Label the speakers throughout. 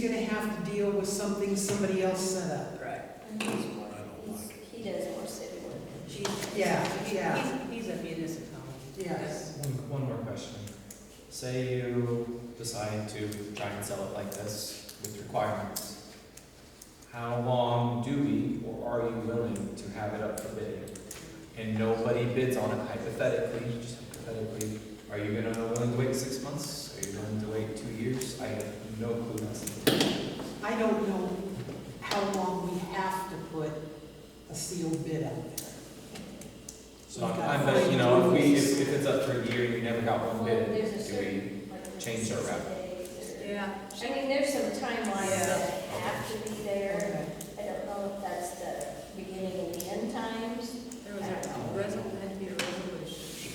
Speaker 1: gonna have to deal with something somebody else set up.
Speaker 2: Right.
Speaker 3: He's- He does more city work.
Speaker 2: She-
Speaker 1: Yeah,
Speaker 2: he-
Speaker 1: yeah.
Speaker 2: He's he's a municipality.
Speaker 1: Yes.
Speaker 4: One, one more question. Say you decide to try and sell it like this with requirements. How long do we, or are you willing to have it up for bid? And nobody bids on it hypothetically, just hypothetically, are you gonna willing to wait six months? Are you willing to wait two years? I have no clue. That's
Speaker 1: I don't know how long we have to put a sealed bid out there.
Speaker 4: So I'm, I'm, like, you know, if we, if if it's up for a year and you never got
Speaker 3: Well,
Speaker 4: one
Speaker 3: there's a
Speaker 4: bid, do we?
Speaker 3: certain, like,
Speaker 4: change our route?
Speaker 3: 60 days or-
Speaker 2: Yeah.
Speaker 3: I mean, there's some timelines
Speaker 2: Yeah.
Speaker 3: that have to be there.
Speaker 1: Okay.
Speaker 3: I don't know if that's the beginning and the end times.
Speaker 2: There was a resol, had to be a resolution.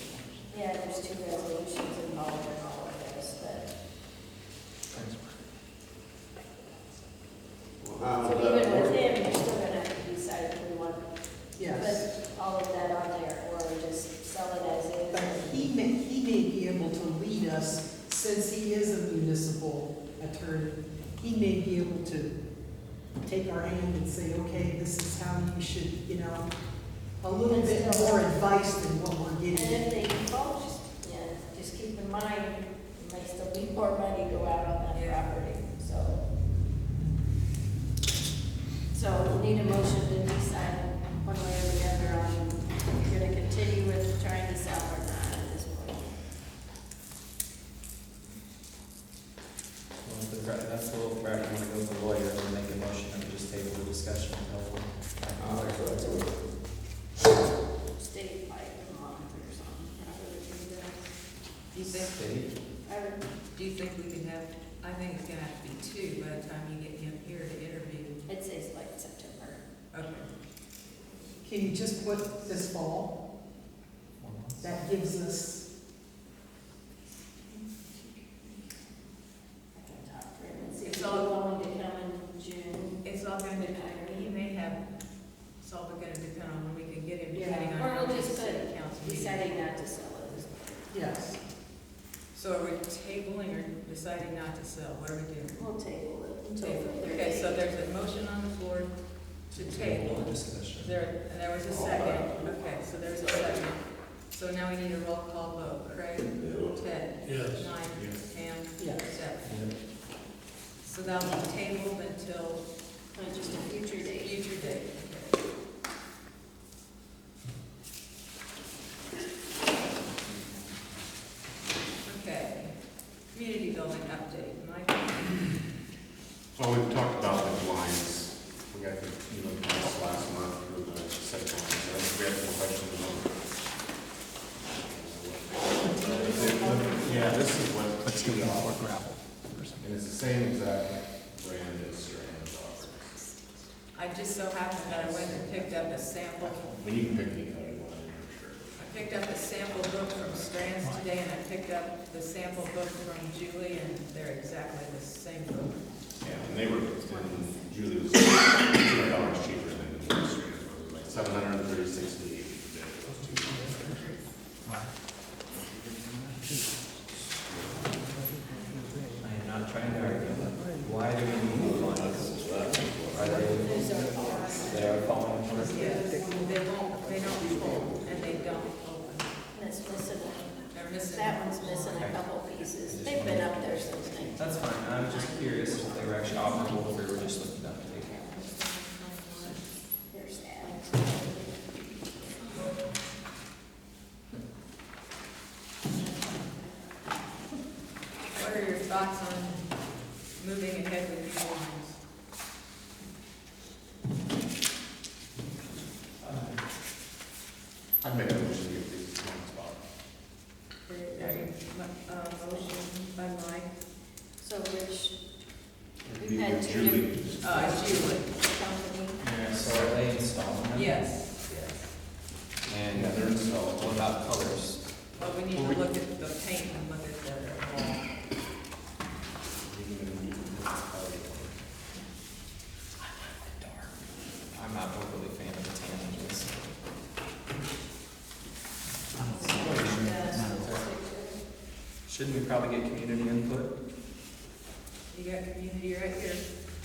Speaker 3: Yeah, there's two resolutions involved in all of this, but so even with them, you're still gonna have to decide if we want to
Speaker 1: Yes.
Speaker 3: put all of that on there or just sell it as is.
Speaker 1: But he may, he may be able to lead us, since he is a municipal attorney, he may be able to take our hand and say, okay, this is how you should, you know, a little bit more advice than what we're
Speaker 3: And
Speaker 1: getting.
Speaker 3: if they default, just, yeah, just keep in mind, there may still be more money go out on that property, so. So we need a motion to decide one way or the other on if you're gonna continue with trying to sell or not at this point.
Speaker 4: Well, if the pra- That's a little crap, you wanna go with the lawyer and make a motion and just table the discussion until.
Speaker 3: State like a month or something, probably would be the-
Speaker 2: Do you think,
Speaker 4: State,
Speaker 3: I would,
Speaker 2: do you think we could have, I think it's gonna have to be two by the time you get him here to interview.
Speaker 3: I'd say it's like September.
Speaker 2: Okay.
Speaker 1: Can you just put this fall?
Speaker 4: one month.
Speaker 1: That gives us,
Speaker 3: I can talk to him and see if
Speaker 2: It's
Speaker 3: he's
Speaker 2: all-
Speaker 3: willing to come in June.
Speaker 2: It's all gonna depend, he may have, it's all gonna depend on when we can get him, depending on.
Speaker 3: Yeah. Or
Speaker 2: how
Speaker 3: we'll
Speaker 2: many
Speaker 3: just
Speaker 2: city
Speaker 3: put
Speaker 2: council meetings.
Speaker 3: Deciding not to sell it is
Speaker 1: yes.
Speaker 2: So are we tabling or deciding not to sell? What are we doing?
Speaker 3: We'll table it until further
Speaker 2: Okay, so
Speaker 3: date.
Speaker 2: there's a motion on the floor to
Speaker 4: Table
Speaker 2: table.
Speaker 4: the discussion.
Speaker 2: There, and there was a second. Okay, so there's a second. So now we need a roll call vote. Craig? Ted?
Speaker 5: Yes.
Speaker 2: Mike? Pam?
Speaker 1: Yes.
Speaker 2: Steph?
Speaker 4: Yep.
Speaker 2: So that'll be tabled until
Speaker 3: Not just a future
Speaker 2: a
Speaker 3: date.
Speaker 2: future date. Okay. Community building update. Mike?
Speaker 5: So we've talked about the lines, we got the, you know, the lines last month for the set lines, so if we have any questions on. Yeah, this is what. Let's give it all a gravel. And it's the same exact brand as Strand offers.
Speaker 2: I just so happened that I went and picked up a sample,
Speaker 5: But you can pick any other one, I'm sure.
Speaker 2: I picked up a sample book from Strands today, and I picked up the sample book from Julie, and they're exactly the same book.
Speaker 5: Yeah, and they were, and Julie was two hundred dollars cheaper than the Strand, it was like seven hundred and thirty-six to eighty, those two.
Speaker 4: I am not trying to argue, but why do we need the lines? Are
Speaker 3: Those
Speaker 4: they,
Speaker 3: are all right.
Speaker 4: they are falling apart?
Speaker 2: They won't, they don't fold, and they don't open.
Speaker 3: That's missing, one.
Speaker 2: They're missing.
Speaker 3: that one's missing a couple pieces. They've been up there since nineteen.
Speaker 4: That's fine, I'm just curious if they were actually operable, or if we were just looking up to date.
Speaker 3: There's that.
Speaker 2: What are your thoughts on moving ahead with these lines?
Speaker 5: I'd make a motion to give these to Mike's Bob.
Speaker 2: Uh, motion by Mike,
Speaker 3: So Rich,
Speaker 5: Be
Speaker 3: we've had
Speaker 5: with
Speaker 3: two
Speaker 5: Julie.
Speaker 3: different
Speaker 2: uh, Julie,
Speaker 3: company.
Speaker 4: Yeah, so are they installing them?
Speaker 2: yes, yes.
Speaker 4: And uh, they're installed, what about colors?
Speaker 2: Well, we need to look at the paint and look at the wall.
Speaker 4: I'm not overly fan of the tan, I guess.
Speaker 3: Uh,
Speaker 4: Shouldn't we probably get community input?
Speaker 2: You got community right here.